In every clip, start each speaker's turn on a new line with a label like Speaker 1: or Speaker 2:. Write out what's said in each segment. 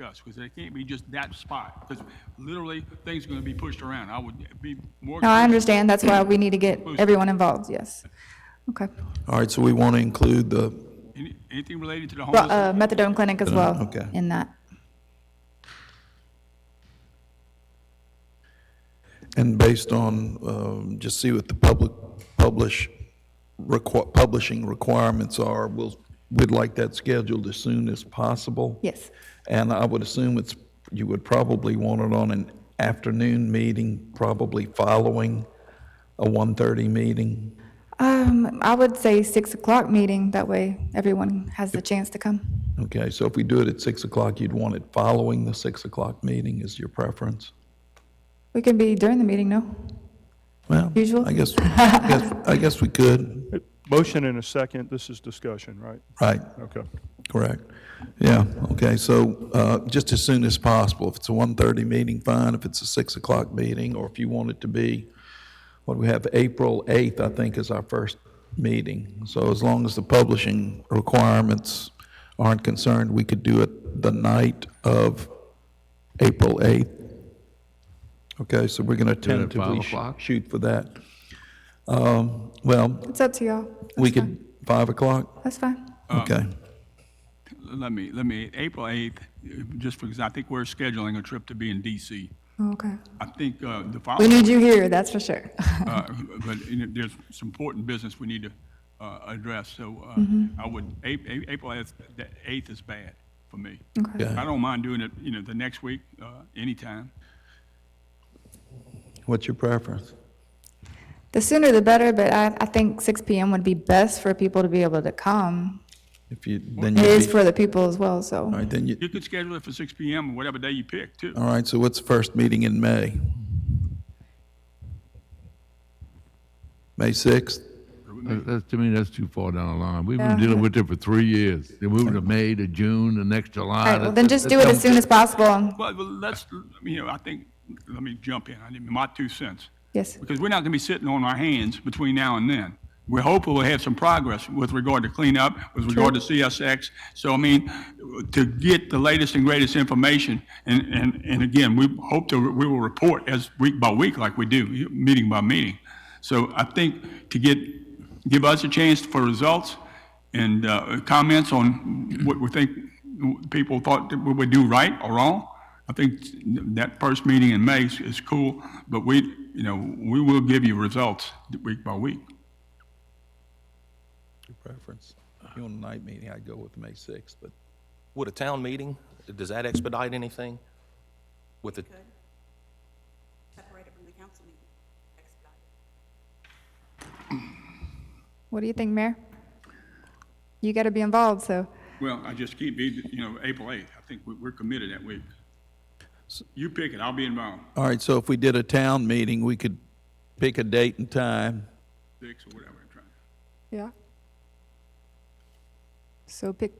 Speaker 1: discuss, because it can't be just that spot, because literally, things are gonna be pushed around. I would be more.
Speaker 2: No, I understand. That's why we need to get everyone involved, yes. Okay.
Speaker 3: All right, so we want to include the,
Speaker 1: Any- Anything related to the
Speaker 2: Well,
Speaker 1: homeless?
Speaker 2: uh, methadone clinic as well
Speaker 3: Okay.
Speaker 2: in that.
Speaker 3: and based on, um, just see what the public, publish, requ- publishing requirements are, we'll, we'd like that scheduled as soon as possible.
Speaker 2: Yes.
Speaker 3: And I would assume it's, you would probably want it on an afternoon meeting, probably following a 1:30 meeting.
Speaker 2: Um, I would say six o'clock meeting, that way everyone has the chance to come.
Speaker 3: Okay, so if we do it at 6 o'clock, you'd want it following the 6 o'clock meeting is your preference?
Speaker 2: We can be during the meeting, no?
Speaker 3: Well,
Speaker 2: Usual.
Speaker 3: I guess, I guess, I guess we could,
Speaker 4: Motion and a second, this is discussion, right?
Speaker 3: right,
Speaker 4: Okay.
Speaker 3: correct. Yeah, okay, so uh, just as soon as possible. If it's a 1:30 meeting, fine. If it's a 6 o'clock meeting, or if you want it to be, what do we have, April 8th, I think, is our first meeting. So as long as the publishing requirements aren't concerned, we could do it the night of April 8th. Okay, so we're going to
Speaker 5: it at five
Speaker 3: tentatively sh-
Speaker 5: o'clock?
Speaker 3: shoot for that. Um, Well,
Speaker 2: It's up to y'all.
Speaker 3: We could, 5 o'clock?
Speaker 2: That's fine.
Speaker 5: Um,
Speaker 3: Okay.
Speaker 2: uh,
Speaker 1: Let me, let me, April 8th, uh, just because I think we're scheduling a trip to be in DC.
Speaker 2: Okay.
Speaker 1: I think uh, the
Speaker 2: We
Speaker 1: following,
Speaker 2: need you here, that's for sure.
Speaker 1: uh, but you know, there's some important business we need to uh, address, so uh,
Speaker 2: Mm-hmm.
Speaker 1: I would, A- A- April 8th the 8th is bad for me.
Speaker 2: Okay.
Speaker 1: I don't mind doing it, you know, the next week, uh, anytime.
Speaker 3: What's your preference?
Speaker 2: The sooner the better, but I, I think six PM would be best for people to be able to come.
Speaker 3: If you, then
Speaker 2: It
Speaker 3: you'd
Speaker 2: is
Speaker 3: be,
Speaker 2: for the people as well,
Speaker 3: all
Speaker 2: so.
Speaker 3: right, then you,
Speaker 1: You could schedule it for 6 PM, or whatever day you pick, too.
Speaker 3: all right, so what's the first meeting in May? May 6th?
Speaker 5: That- That's, to me, that's too far down the line. We've
Speaker 2: Yeah.
Speaker 5: been dealing with it for three years. They moved to May to June, the next
Speaker 2: All
Speaker 5: July.
Speaker 3: Uh,
Speaker 2: right, well, then just do it as soon as possible.
Speaker 1: Well, well, let's, you know, I think, let me jump in, I need my two cents.
Speaker 2: Yes.
Speaker 1: Because we're not going to be sitting on our hands between now and then. We're hopeful we'll have some progress with regard to cleanup, with regard to CSX. So, I mean, to get the latest and greatest information, and, and, and again, we hope to, we will report as week by week like we do, meeting by meeting. So I think to get, give us a chance for results and uh, comments on what we think people thought that we would do right or wrong. I think that first meeting in May is, is cool, but we, you know, we will give you results week by week.
Speaker 3: Your preference. If you want a night meeting, I'd go with May 6th, but
Speaker 6: Would a town meeting, does that expedite anything? With the,
Speaker 7: separate it from the council meeting, expedite it.
Speaker 2: What do you think, Mayor? You gotta be involved, so.
Speaker 1: Well, I just keep, be- you know, April 8th, I think we- we're committed that week. You pick it, I'll be involved,
Speaker 3: All right, so if we did a town meeting, we could pick a date and time.
Speaker 1: six or whatever. I'm trying-
Speaker 2: Yeah. So pick,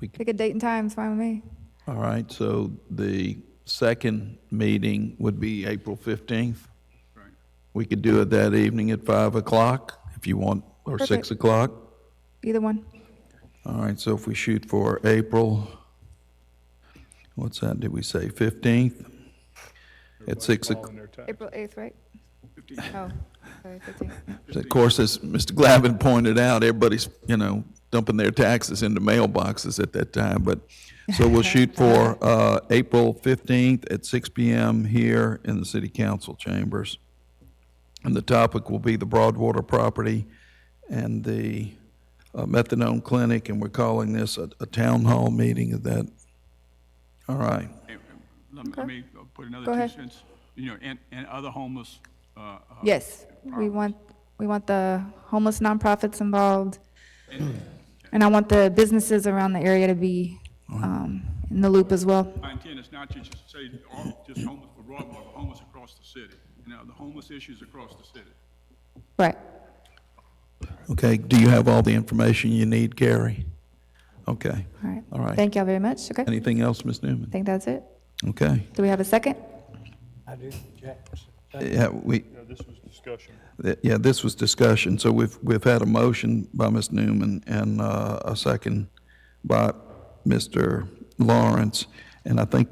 Speaker 3: We
Speaker 2: pick a date and time, it's fine with me.
Speaker 3: All right, so the second meeting would be April 15th.
Speaker 1: Right.
Speaker 3: We could do it that evening at 5 o'clock if you want, or 6
Speaker 2: Perfect.
Speaker 3: o'clock.
Speaker 2: Either one.
Speaker 3: All right, so if we shoot for April, what's that, did we say 15th? At 6 o'clock.
Speaker 4: Calling their time.
Speaker 2: April 8th, right?
Speaker 1: 15th.
Speaker 2: Oh, sorry, 15th.
Speaker 3: Of course, as Mr. Glavin pointed out, everybody's, you know, dumping their taxes into mailboxes at that time, but, so we'll shoot for uh, April 15th at 6 PM here in the city council chambers. And the topic will be the Broadwater property and the uh, methadone clinic, and we're calling this a a town hall meeting of that. All right.
Speaker 1: Hey, Let me- let me put another
Speaker 2: Go
Speaker 1: two
Speaker 2: ahead.
Speaker 1: cents, you know, and, and other homeless, uh, uh,
Speaker 2: Yes, we want, we want the homeless nonprofits involved. And I want the businesses around the area to be, um, in the loop as well.
Speaker 1: My intent is not to just say, all- just homeless for Broadmoor, but homeless across the city, you know, the homeless issues across the city.
Speaker 2: Right.
Speaker 3: Okay, do you have all the information you need, Gary? Okay.
Speaker 2: All right.
Speaker 3: All right.
Speaker 2: Thank y'all very much. Okay. I
Speaker 3: Anything else, Ms. Newman?
Speaker 2: think that's it.
Speaker 3: Okay.
Speaker 2: Do we have a second?
Speaker 8: I do, Jack.
Speaker 3: Yeah, we,
Speaker 4: No, this was discussion.
Speaker 3: th- yeah, this was discussion, so we've, we've had a motion by Ms. Newman and uh, a second by Mr. Lawrence, and I think